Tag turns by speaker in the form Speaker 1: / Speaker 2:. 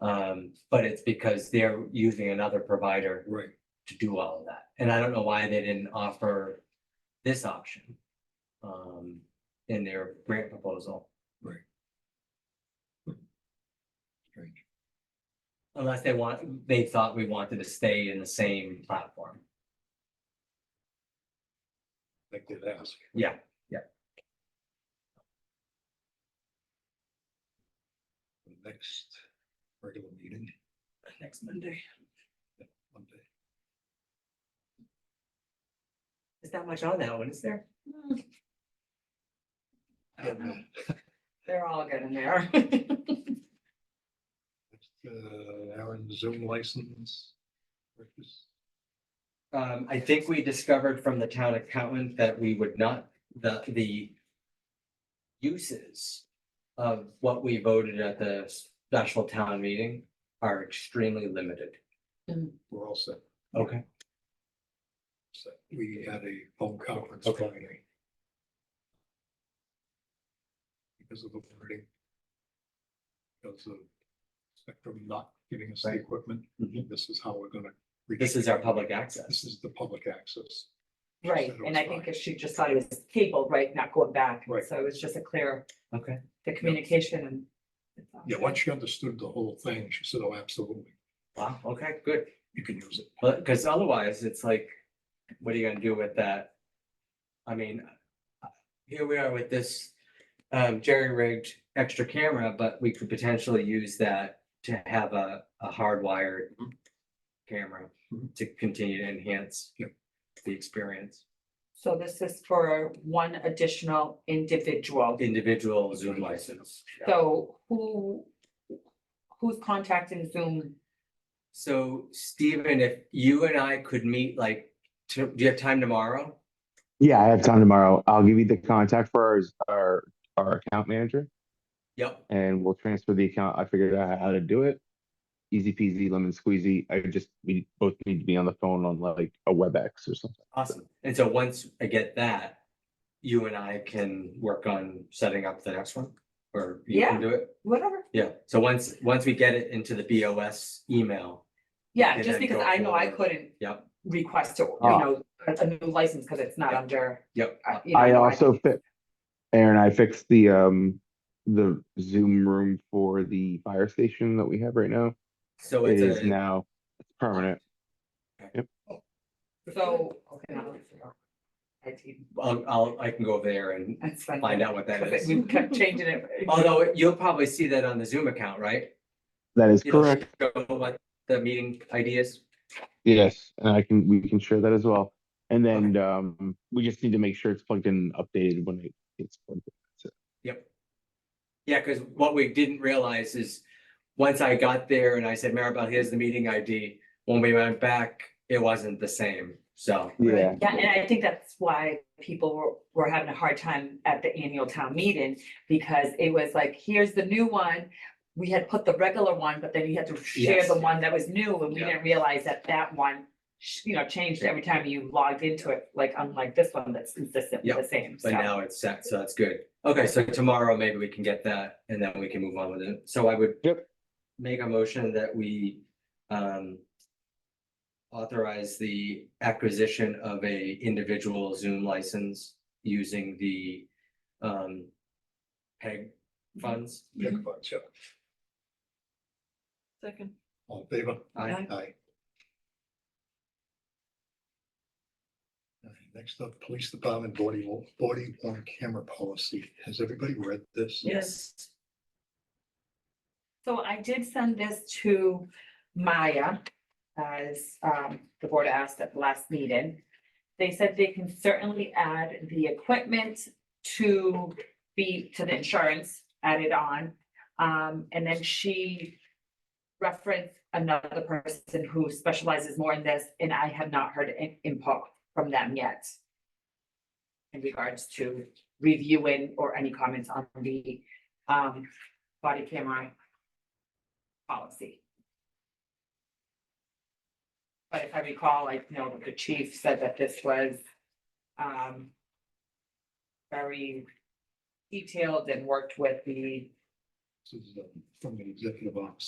Speaker 1: Um, but it's because they're using another provider
Speaker 2: Right.
Speaker 1: to do all of that. And I don't know why they didn't offer this option. Um, in their grant proposal.
Speaker 2: Right. Strange.
Speaker 1: Unless they want, they thought we wanted to stay in the same platform.
Speaker 2: They did ask.
Speaker 1: Yeah, yeah.
Speaker 2: Next regular meeting,
Speaker 1: Next Monday.
Speaker 2: Monday.
Speaker 1: There's not much on that one, is there?
Speaker 3: They're all good in there.
Speaker 2: Uh, Aaron Zoom license. purchase.
Speaker 1: Um, I think we discovered from the town accountant that we would not, the, the uses of what we voted at the special town meeting are extremely limited.
Speaker 2: We're all set.
Speaker 1: Okay.
Speaker 2: So we had a phone conference
Speaker 1: Okay.
Speaker 2: Friday. Because of the wording. Because of Spectrum not giving us the
Speaker 1: Right.
Speaker 2: equipment,
Speaker 1: Mhm.
Speaker 2: this is how we're gonna.
Speaker 1: This is our public access.
Speaker 2: This is the public access.
Speaker 3: Right, and I think if she just thought it was cable, right, not going back,
Speaker 2: Right.
Speaker 3: so it was just a clear,
Speaker 1: Okay.
Speaker 3: the communication and.
Speaker 2: Yeah, once she understood the whole thing, she said, oh, absolutely,
Speaker 1: Wow, okay, good.
Speaker 2: you can use it.
Speaker 1: But, because otherwise, it's like, what are you gonna do with that? I mean, here we are with this um jerry-rigged extra camera, but we could potentially use that to have a, a hardwired
Speaker 2: Mhm.
Speaker 1: camera
Speaker 2: Mhm.
Speaker 1: to continue to enhance
Speaker 2: Yep.
Speaker 1: the experience,
Speaker 3: So this is for one additional individual,
Speaker 1: individual Zoom license.
Speaker 3: so who? Who's contacting Zoom?
Speaker 1: So Stephen, if you and I could meet like, to, do you have time tomorrow?
Speaker 4: Yeah, I have time tomorrow. I'll give you the contact for our, our, our account manager
Speaker 1: Yep,
Speaker 4: and we'll transfer the account. I figured out how to do it. Easy peasy lemon squeezy. I just, we both need to be on the phone on like a WebEx or something.
Speaker 1: awesome. And so once I get that, you and I can work on setting up the next one, or you can
Speaker 3: Yeah.
Speaker 1: do it?
Speaker 3: Whatever,
Speaker 1: Yeah, so once, once we get it into the BOS email,
Speaker 3: yeah,
Speaker 1: Okay,
Speaker 3: just
Speaker 1: then
Speaker 3: because
Speaker 1: go
Speaker 3: I know I
Speaker 1: forward.
Speaker 3: couldn't.
Speaker 1: Yep.
Speaker 3: Request, to, you
Speaker 4: Ah.
Speaker 3: know, a a new license, because it's not
Speaker 1: Yep.
Speaker 3: under.
Speaker 1: yep,
Speaker 3: uh, you know,
Speaker 4: I
Speaker 3: know
Speaker 4: also fit, Aaron, I fixed the, um, the Zoom room for the fire station that we have right now.
Speaker 1: so
Speaker 4: It
Speaker 1: Oh, it's
Speaker 4: is
Speaker 1: a,
Speaker 4: now permanent.
Speaker 3: So. okay, now let's figure out. IT,
Speaker 1: I'll, I'll, I can go there and
Speaker 3: that's fine.
Speaker 1: find out what that
Speaker 3: Because
Speaker 1: is.
Speaker 3: we kept changing it.
Speaker 1: Although you'll probably see that on the Zoom account, right?
Speaker 4: That is
Speaker 1: It'll
Speaker 4: correct.
Speaker 1: show What the meeting ideas,
Speaker 4: Yes, and I can, we can share that as well. And then, um, we just need to make sure it's plugged in, and updated when it gets plugged in.
Speaker 1: yep. Yeah, because what we didn't realize is, once I got there and I said, Maribel, here's the meeting ID, when we went back, it wasn't the same, so.
Speaker 4: Yeah,
Speaker 3: Yeah, and I think that's why people were, were having a hard time at the annual town meeting, because it was like, here's the new one. We had put the regular one, but then you had to share
Speaker 1: Yes.
Speaker 3: the one that was new, and we
Speaker 1: Yeah.
Speaker 3: didn't realize that that one, sh- you know, changed every time you logged into it, like unlike this one that's consistent with the same,
Speaker 1: But
Speaker 3: so.
Speaker 1: now it's set, so that's good. Okay, so tomorrow maybe we can get that and then we can move on with it. So I would.
Speaker 4: Yep.
Speaker 1: Make a motion that we um. Authorize the acquisition of a individual Zoom license using the um. PEG funds.
Speaker 2: Yeah,
Speaker 3: Mm-hmm.
Speaker 2: come on, Chuck.
Speaker 3: Second.
Speaker 2: All in favor?
Speaker 1: I,
Speaker 2: Aye. Alright, Next up, police department body, body on camera policy. Has everybody read this?
Speaker 3: Yes. So I did send this to Maya, as um the board asked at the last meeting. They said they can certainly add the equipment to be to the insurance added on. Um, and then she referenced another person who specializes more in this, and I have not heard an input from them yet. In regards to reviewing or any comments on the um body camera policy. But if I recall, I know that the chief said that this was um very detailed and worked with the
Speaker 2: This is um, uh, from the executive office.